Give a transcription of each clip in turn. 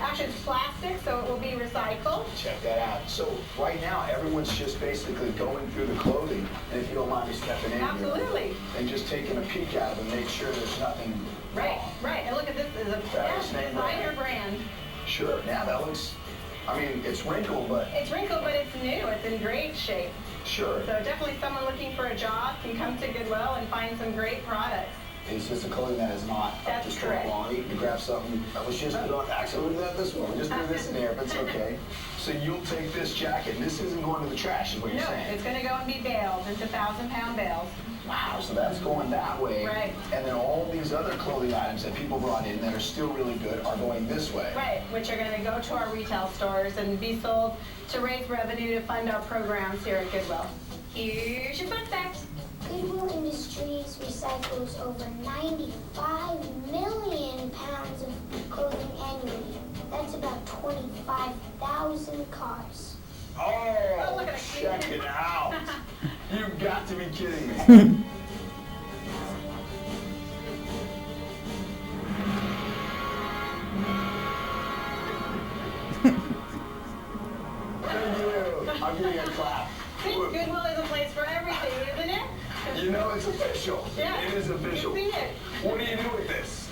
Actually, it's plastic, so it will be recycled. Check that out. So right now, everyone's just basically going through the clothing, and if you don't mind me stepping in here. Absolutely. And just taking a peek at it and make sure there's nothing Right, right. And look at this, it's a Fabulous yeah, name brand. designer brand. Sure, now that looks, I mean, it's wrinkled, but It's wrinkled, but it's new. It's in great shape. sure. So definitely someone looking for a job can come to Goodwill and find some great products. It's just a clothing that is not up That's to store correct. quality. You grab something, that was just put on, actually, we did this one, we just threw this in there, but it's okay. So you'll take this jacket, and this isn't going to the trash, is what you're No, saying? it's gonna go and be baled into thousand pound bales. Wow, so that's going that way. Right. And then all these other clothing items that people brought in that are still really good are going this way. Right, which are gonna go to our retail stores and be sold to raise revenue to fund our programs here at Goodwill. Here's your fun fact. Goodwill Industries recycles over 95 million pounds of clothing annually. That's about 25,000 cars. Oh, look Oh, at it. check it out. You've got to be kidding me. Thank you. I'm giving you a clap. See, Goodwill is a place for everything, isn't it? You know it's official. Yeah. It is official. You see it. What do you do with this?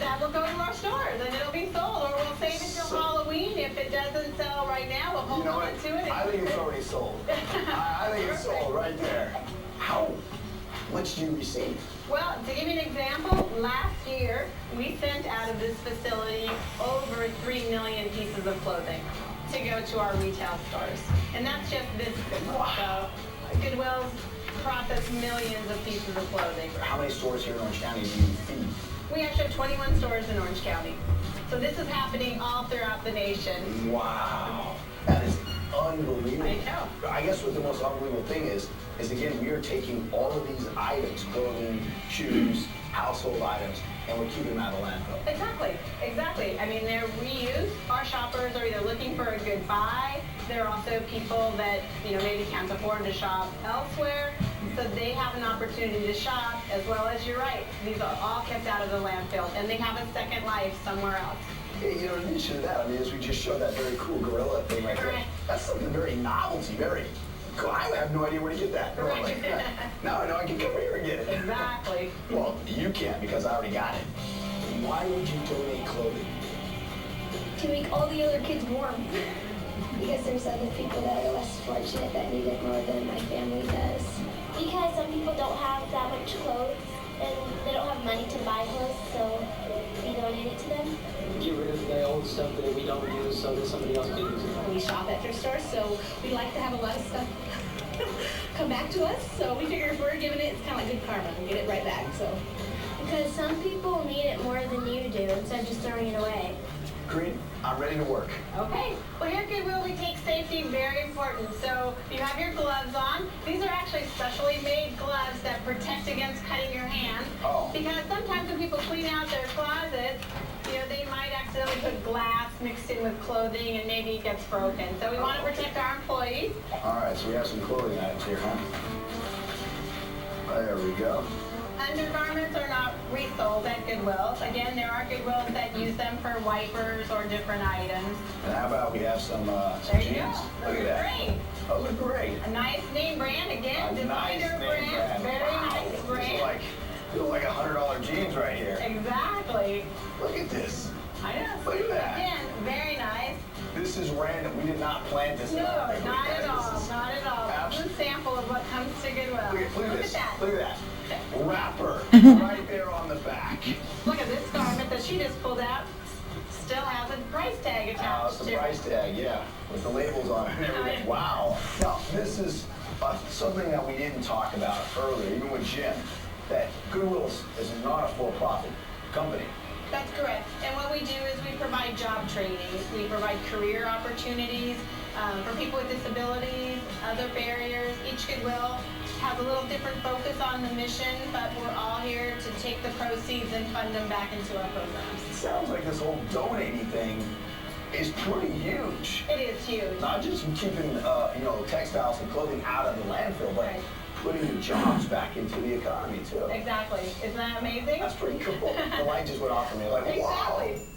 That will go to our stores and it'll be sold, or we'll save it till So- Halloween. If it doesn't sell right now, we'll You hold know on what? to it. I think it's already sold. I, I think it's sold right there. How much do you receive? Well, to give you an example, last year, we sent out of this facility over 3 million pieces of clothing to go to our retail stores. And that's just this Goodwill. So Goodwill's processed millions of pieces of clothing. How many stores here in Orange County do you feed? We actually have 21 stores in Orange County. So this is happening all throughout the nation. Wow. That is unbelievable. I know. I guess what the most unbelievable thing is, is again, we are taking all of these items, clothing, shoes, household items, and we're keeping them out of the landfill. Exactly, exactly. I mean, they're reused. Our shoppers are either looking for a good buy. There are also people that, you know, maybe can't afford to shop elsewhere. So they have an opportunity to shop as well as, you're right, these are all kept out of the landfill and they have a second life somewhere else. Yeah, you know, in addition to that, I mean, as we just showed that very cool gorilla thing right there, Correct. that's something very novelty, very, cool. I have no idea where to get that. No, I'm like, Right. no, no, I can come here and get it. Exactly. Well, you can't because I already got it. Why would you donate clothing? to make all the other kids warm. Because there's other people that are less fortunate that need it more than my family does. Because some people don't have that much clothes and they don't have money to buy clothes, so we donate it to them. get rid of the old stuff that we don't use so that somebody else can use it. We shop at thrift stores, so we like to have a lot of stuff come back to us. So we figure if we're giving it, it's kind of like good karma. We get it right back. So Because some people need it more than you do instead of just throwing it away. Green, I'm ready to work. Okay, well here at Goodwill we take safety very important. So you have your gloves on. These are actually specially made gloves that protect against cutting your hand. Oh. Because sometimes when people clean out their closets, you know, they might accidentally put glass mixed in with clothing and maybe it gets broken. So we want to protect our employees. All right, so we have some clothing items here, huh? There we go. Undergarments are not resold at Goodwill. Again, there are Goodwills that use them for wipers or different items. And how about we have some, uh, some There you jeans? go. Those Look at are that. great. Those look great. A nice name brand again, a nice designer name brand, very Wow. nice These are like, brand. these are like a hundred dollar jeans right here. Exactly. Look at this. I know. Look at that. Again, very nice. This is random. We did not plan this. No, out. Like, not guys, at this all. is- Not at all. This is a sample of what comes to Goodwill. Look at, look at Look at this. that. Look at that. Wrapper right there on the back. Look at this garment that she just pulled out. Still has a price tag Uh, attached the to it. price tag, yeah, with the labels on it and everything. Wow. Now, this is uh, something that we didn't talk about earlier, even with Jim, that Goodwill is, is not a for-profit company. That's correct. And what we do is we provide job training, we provide career opportunities um, for people with disabilities, other barriers. Each Goodwill has a little different focus on the mission, but we're all here to take the proceeds and fund them back into our programs. It sounds like this whole donating thing is pretty huge. It is huge. Not just keeping, uh, you know, textiles and clothing out of the landfill, but putting jobs back into the economy too. Exactly. Isn't that amazing? That's pretty cool. The light just went off for me, like, wow. Exactly.